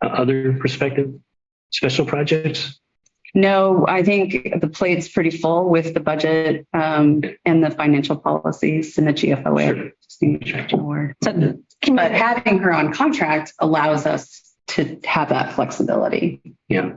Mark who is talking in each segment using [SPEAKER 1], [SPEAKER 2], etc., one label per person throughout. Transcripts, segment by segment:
[SPEAKER 1] other prospective special projects?
[SPEAKER 2] No, I think the plate's pretty full with the budget um, and the financial policies and the GFOA. Just need to check the word. So, But having her on contract allows us to have that flexibility.
[SPEAKER 1] Yeah,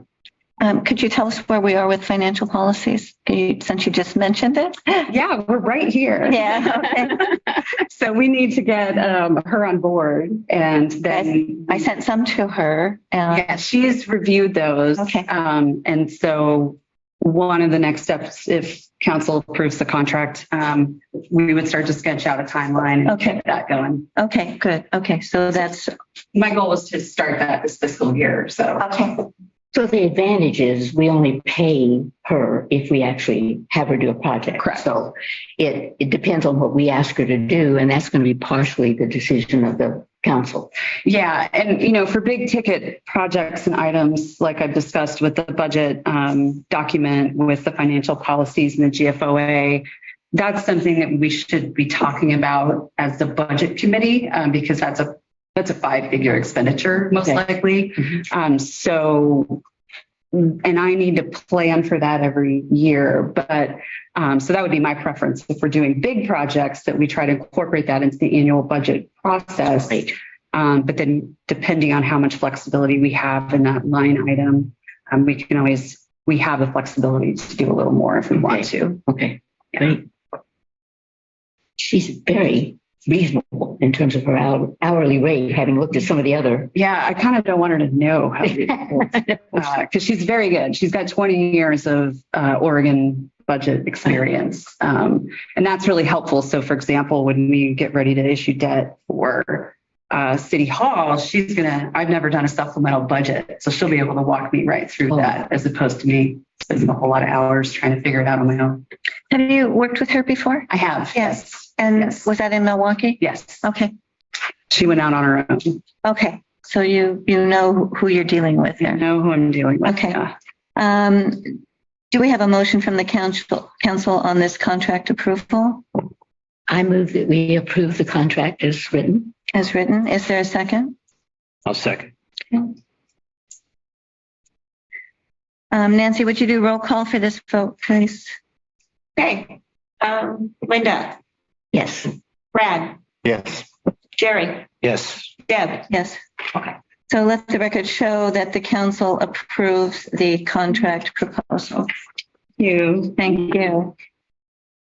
[SPEAKER 3] Um, could you tell us where we are with financial policies? Could you- Since you just mentioned it?
[SPEAKER 2] Yeah, we're right here.
[SPEAKER 3] Yeah,
[SPEAKER 2] So we need to get um, her on board and then.
[SPEAKER 3] I sent some to her. uh,
[SPEAKER 2] Yeah, she's reviewed those.
[SPEAKER 3] Okay.
[SPEAKER 2] Um, and so one of the next steps, if council approves the contract, um, we would start to sketch out a timeline and
[SPEAKER 3] Okay.
[SPEAKER 2] get that going.
[SPEAKER 3] Okay, good. Okay, so that's,
[SPEAKER 2] My goal is to start that this fiscal year, so.
[SPEAKER 3] okay,
[SPEAKER 4] So the advantage is we only pay her if we actually have her do a project.
[SPEAKER 2] Correct.
[SPEAKER 4] So it, it depends on what we ask her to do, and that's going to be partially the decision of the council.
[SPEAKER 2] Yeah, and you know, for big ticket projects and items, like I've discussed with the budget um, document, with the financial policies and the GFOA, that's something that we should be talking about as the budget committee, um, because that's a, that's a five-figure expenditure, most
[SPEAKER 4] Okay.
[SPEAKER 2] likely.
[SPEAKER 4] Mhm.
[SPEAKER 2] Um, So, and I need to plan for that every year, but, um, so that would be my preference. If we're doing big projects, that we try to incorporate that into the annual budget process.
[SPEAKER 4] Right.
[SPEAKER 2] Um, but then depending on how much flexibility we have in that line item, um, we can always, we have the flexibility to do a little more if we want to.
[SPEAKER 4] Okay,
[SPEAKER 2] Yeah.
[SPEAKER 4] great. She's very reasonable in terms of her hour- hourly rate, having looked at some of the other.
[SPEAKER 2] Yeah, I kind of don't want her to know how to
[SPEAKER 4] I
[SPEAKER 2] because Uh, she's very good. She's got 20 years of uh, Oregon budget experience. Um, and that's really helpful. So, for example, when we get ready to issue debt for uh, City Hall, she's going to, I've never done a supplemental budget. So she'll be able to walk me right through
[SPEAKER 4] Oh.
[SPEAKER 2] that as opposed to me spending a whole lot of hours trying to figure it out on my own.
[SPEAKER 3] have you worked with her before?
[SPEAKER 2] I have.
[SPEAKER 3] Yes. And
[SPEAKER 2] Yes.
[SPEAKER 3] was that in Milwaukee?
[SPEAKER 2] Yes.
[SPEAKER 3] Okay,
[SPEAKER 2] She went out on her own.
[SPEAKER 3] okay. So you, you know who you're dealing with
[SPEAKER 2] I
[SPEAKER 3] there.
[SPEAKER 2] know who I'm dealing with.
[SPEAKER 3] Okay.
[SPEAKER 2] Yeah.
[SPEAKER 3] Um, do we have a motion from the council, council on this contract approval
[SPEAKER 4] move that we approve the contract as written.
[SPEAKER 3] as written? Is there a second?
[SPEAKER 1] I'll second.
[SPEAKER 3] Um, Nancy, would you do roll call for this vote, please? Okay. Um, Linda,
[SPEAKER 4] Yes.
[SPEAKER 3] Brad,
[SPEAKER 5] Yes.
[SPEAKER 3] Jerry,
[SPEAKER 1] Yes,
[SPEAKER 3] Deb? Yes.
[SPEAKER 2] Okay.
[SPEAKER 3] So let the record show that the council approves the contract proposal.
[SPEAKER 2] You.
[SPEAKER 3] Thank you.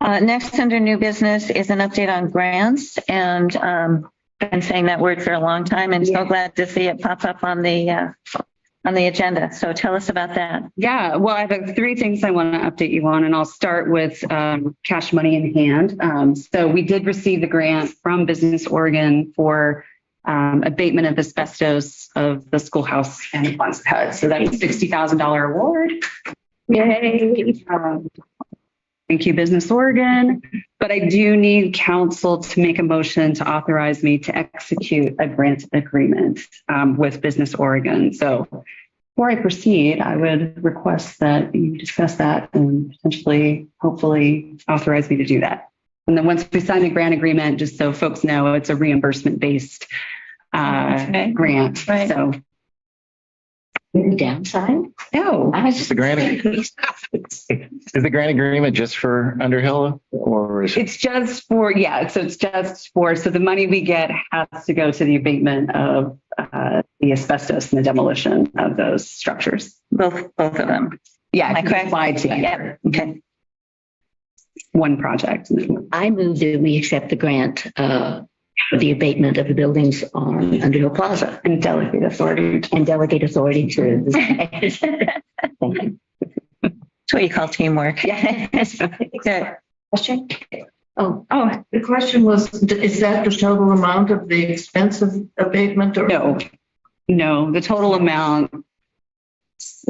[SPEAKER 3] Uh, next under new business is an update on grants and, um, been saying that word for a long time and so glad to see it pop up on the, uh, on the agenda. So tell us about that.
[SPEAKER 2] Yeah, well, I have three things I want to update you on, and I'll start with um, cash money in hand. Um, So we did receive the grant from Business Oregon for um, abatement of asbestos of the schoolhouse and Quonset hut. So that's a $60,000 award. Yay. Um, Thank you, Business Oregon. But I do need council to make a motion to authorize me to execute a grant agreement um, with Business Oregon. So before I proceed, I would request that you discuss that and potentially, hopefully authorize me to do that. And then once we sign the grant agreement, just so folks know, it's a reimbursement based uh,
[SPEAKER 3] Okay.
[SPEAKER 2] grant.
[SPEAKER 3] Right.
[SPEAKER 2] So,
[SPEAKER 4] Any downside?
[SPEAKER 2] no.
[SPEAKER 4] I was just
[SPEAKER 5] The grant, is the grant agreement just for Underhill or is it?
[SPEAKER 2] It's just for, yeah, so it's just for, so the money we get has to go to the abatement of uh, the asbestos and the demolition of those structures.
[SPEAKER 3] Both, both of them.
[SPEAKER 2] Yeah,
[SPEAKER 3] Am I
[SPEAKER 2] it can
[SPEAKER 3] correct?
[SPEAKER 2] be applied
[SPEAKER 3] Yeah.
[SPEAKER 2] together.
[SPEAKER 3] Okay.
[SPEAKER 2] One project.
[SPEAKER 4] I move that we accept the grant uh, for the abatement of the buildings on Underhill Plaza
[SPEAKER 2] And delegate authority.
[SPEAKER 4] and delegate authority to. the- Thank you.
[SPEAKER 3] It's what you call teamwork.
[SPEAKER 4] Yes.
[SPEAKER 3] Good.
[SPEAKER 6] Question?
[SPEAKER 4] Oh,
[SPEAKER 6] Oh, the question was, d- is that the total amount of the expense of abatement or?
[SPEAKER 2] No, no, the total amount,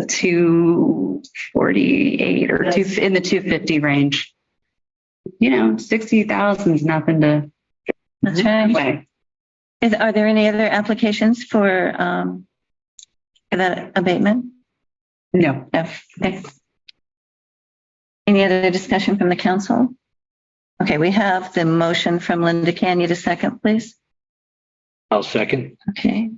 [SPEAKER 2] two forty-eight or two, in the two fifty range. You know, sixty thousand is nothing to,
[SPEAKER 3] That's right.
[SPEAKER 2] anyway,
[SPEAKER 3] Is, are there any other applications for, um, for that abatement?
[SPEAKER 2] no.
[SPEAKER 3] No. Okay. Any other discussion from the council? Okay, we have the motion from Linda. Can you a second, please?
[SPEAKER 1] I'll second.
[SPEAKER 3] Okay.